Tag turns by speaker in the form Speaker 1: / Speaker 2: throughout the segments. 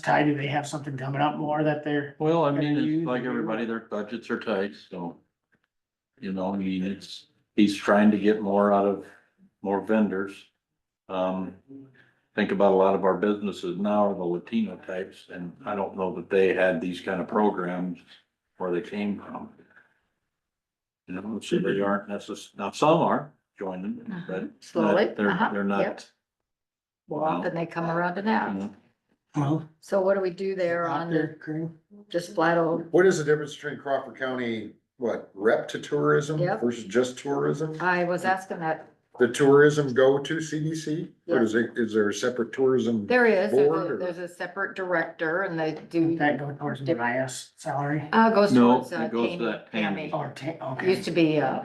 Speaker 1: Ty, do they have something coming up more that they're,
Speaker 2: Well, I
Speaker 1: Gotta
Speaker 2: mean,
Speaker 1: use
Speaker 2: it's like
Speaker 1: the-
Speaker 2: everybody, their budgets are tight, so. You know, I mean, it's, he's trying to get more out of, more vendors. Um, think about a lot of our businesses now are the Latino types, and I don't know that they had these kind of programs where they came from. You know, so they aren't necess, now some are joining, but
Speaker 3: Slowly.
Speaker 2: not- they're,
Speaker 3: uh-huh,
Speaker 2: they're
Speaker 3: yep.
Speaker 2: not. Mm-hmm.
Speaker 3: Well, then they come around to
Speaker 2: you
Speaker 3: that.
Speaker 2: know.
Speaker 1: well,
Speaker 3: So what do we do there on
Speaker 1: out there,
Speaker 3: the,
Speaker 1: Corinne?
Speaker 3: just flat old,
Speaker 4: What is the difference between Crawford County, what, rep to tourism
Speaker 3: Yep.
Speaker 4: versus just tourism?
Speaker 3: I was asking that,
Speaker 4: The tourism go to CDC? Or is it, is there a separate tourism?
Speaker 3: there is, there's
Speaker 4: Board
Speaker 3: a-
Speaker 4: or-
Speaker 3: there's a separate director and they do,
Speaker 1: Would that go towards the IS salary
Speaker 3: uh, goes
Speaker 2: No,
Speaker 3: towards uh,
Speaker 2: it goes to that
Speaker 3: Tammy.
Speaker 1: or ta- okay.
Speaker 3: Used to be, uh,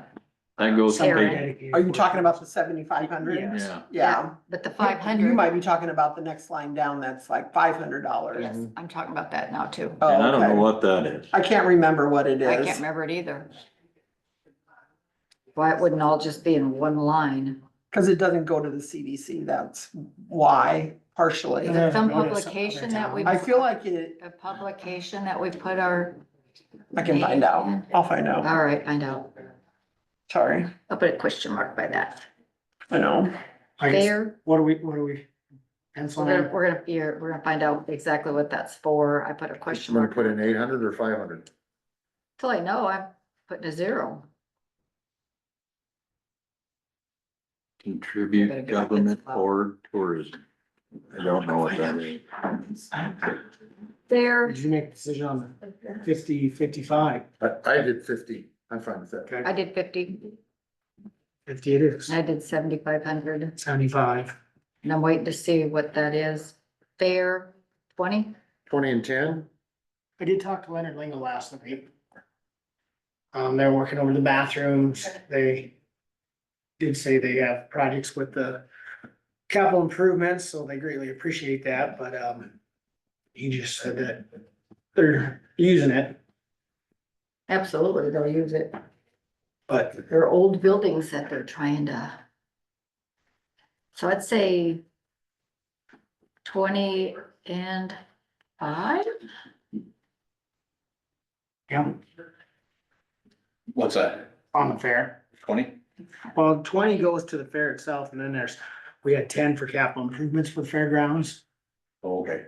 Speaker 2: That goes. to
Speaker 3: Sarah.
Speaker 2: pay-
Speaker 5: Are you talking about the seventy-five hundred?
Speaker 1: Yes.
Speaker 2: Yeah,
Speaker 5: Yeah.
Speaker 3: but the five
Speaker 5: You
Speaker 3: hundred,
Speaker 5: might be talking about the next line down, that's like five hundred dollars.
Speaker 3: yes, I'm talking about that now too.
Speaker 5: Oh,
Speaker 2: and I don't know
Speaker 5: okay.
Speaker 2: what that is.
Speaker 5: I can't remember what it
Speaker 3: I can't
Speaker 5: is.
Speaker 3: remember it either. Why it wouldn't all just be in one line?
Speaker 5: Cause it doesn't go to the CDC, that's why partially.
Speaker 3: Is it some
Speaker 1: Notice other
Speaker 3: publication that we?
Speaker 1: town.
Speaker 5: I feel like it,
Speaker 3: A publication that we put our,
Speaker 5: I can find out. I'll find out.
Speaker 3: all right, find out.
Speaker 5: Sorry.
Speaker 3: I'll put a question mark by that.
Speaker 5: I know.
Speaker 1: I guess,
Speaker 3: Fair,
Speaker 1: what are we, what are we
Speaker 3: we're
Speaker 1: penciling
Speaker 3: gonna,
Speaker 1: in?
Speaker 3: we're gonna, figure- we're gonna find out exactly what that's for. I put a question
Speaker 4: I'm
Speaker 3: mark.
Speaker 4: gonna put in eight hundred or five hundred.
Speaker 3: Till I know, I'm putting a zero. Better
Speaker 2: Contribute
Speaker 3: get up
Speaker 2: government
Speaker 3: and-
Speaker 2: or tourism. I don't know what that is.
Speaker 3: Fair,
Speaker 1: Did you make a decision on the fifty, fifty-five?
Speaker 4: I, I did fifty. I'm fine with that.
Speaker 3: I did fifty,
Speaker 1: Fifty it is,
Speaker 3: I did seventy-five hundred,
Speaker 1: seventy-five.
Speaker 3: and I'm waiting to see what that is. Fair, twenty?
Speaker 4: Twenty and ten?
Speaker 1: I did talk to Leonard Lingle last night. Um, they're working over the bathrooms. They did say they have projects with the capital improvements, so they greatly appreciate that, but, um, he just said that they're using it,
Speaker 3: Absolutely, they'll use it.
Speaker 1: but
Speaker 3: There are old buildings that they're trying to. So I'd say twenty and five?
Speaker 1: yeah,
Speaker 2: What's that?
Speaker 1: on the fair.
Speaker 2: Twenty?
Speaker 1: Well, twenty goes to the fair itself and then there's, we had ten for capital improvements for the fairgrounds.
Speaker 2: Oh, Okay.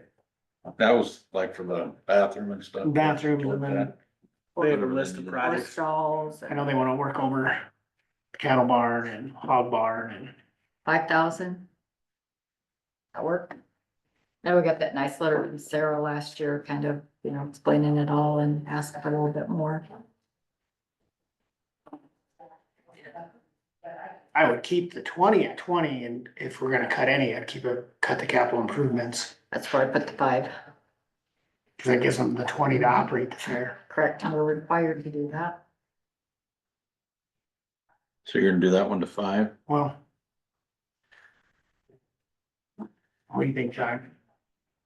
Speaker 2: That was like for the bathroom and stuff.
Speaker 1: Bathrooms and then they have a list of
Speaker 3: Or
Speaker 1: projects.
Speaker 3: stalls,
Speaker 1: I know they wanna work over cattle barn and hog barn and
Speaker 3: five thousand? That work? Now we got that nice letter from Sarah last year, kind of, you know, explaining it all and asking for a little bit more.
Speaker 1: I would keep the twenty at twenty, and if we're gonna cut any, I'd keep it, cut the capital improvements,
Speaker 3: That's where I put the five,
Speaker 1: cause that gives them the twenty to operate the fair.
Speaker 3: correct? And we're required to do that.
Speaker 2: So you're gonna do that one to five?
Speaker 1: Well. What do you think, John?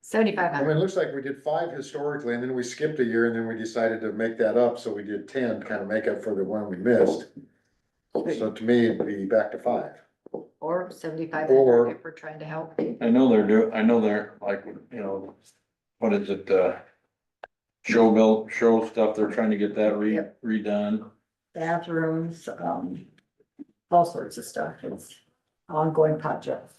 Speaker 3: Seventy-five
Speaker 4: I mean, it
Speaker 3: hundred,
Speaker 4: looks like we did five historically and then we skipped a year and then we decided to make that up, so we did ten, kind of make up for the one we missed. So to me, it'd be back to five.
Speaker 3: or seventy-five
Speaker 4: Or-
Speaker 3: hundred if we're trying to help.
Speaker 2: I know they're do, I know they're like, you know, what is it, uh? Show bill, show stuff, they're trying to get that re,
Speaker 3: Yep.
Speaker 2: redone.
Speaker 3: bathrooms, um, all sorts of stuff. It's ongoing projects.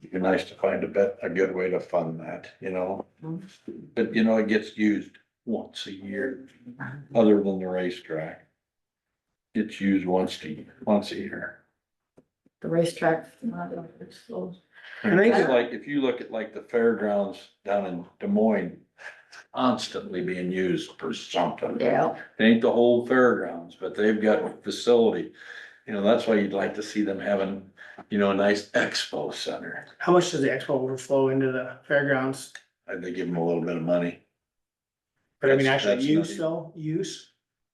Speaker 2: It'd be nice to find a bet, a good way to fund that, you know?
Speaker 3: Mhm.
Speaker 2: But you know, it gets used once a year, other than the racetrack. It's used once a, once a year.
Speaker 3: The racetrack. Well,
Speaker 1: And they
Speaker 2: It's
Speaker 1: do.
Speaker 2: like, if you look at like the fairgrounds down in Des Moines, constantly being used for something.
Speaker 3: Yeah.
Speaker 2: It ain't the whole fairgrounds, but they've got a facility. You know, that's why you'd like to see them having, you know, a nice expo center.
Speaker 1: How much does the expo overflow into the fairgrounds?
Speaker 2: I think give them a little bit of money.
Speaker 1: But I mean,
Speaker 2: That's-
Speaker 1: actually
Speaker 2: that's
Speaker 1: use
Speaker 2: not
Speaker 1: though, use,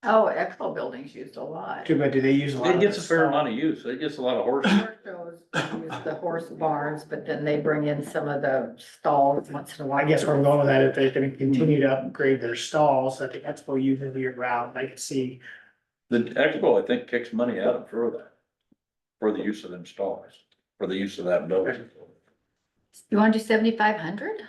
Speaker 3: Oh, Expo buildings used a lot.
Speaker 1: too bad, do they use a lot?
Speaker 2: It
Speaker 1: of
Speaker 2: gets a
Speaker 1: this
Speaker 2: fair
Speaker 1: stuff?
Speaker 2: amount of use. It gets a lot of horses.
Speaker 3: Horse shows use The horse barns, but then they bring in some of the stalls once in a while.
Speaker 1: I guess where I'm going with that, if they're
Speaker 2: Mm-hmm.
Speaker 1: gonna continue to upgrade their stalls that the expo uses year round, I could see.
Speaker 2: The expo, I think, kicks money out for that. For the use of them stalls, for the use of that building.
Speaker 3: You want to do seventy-five hundred?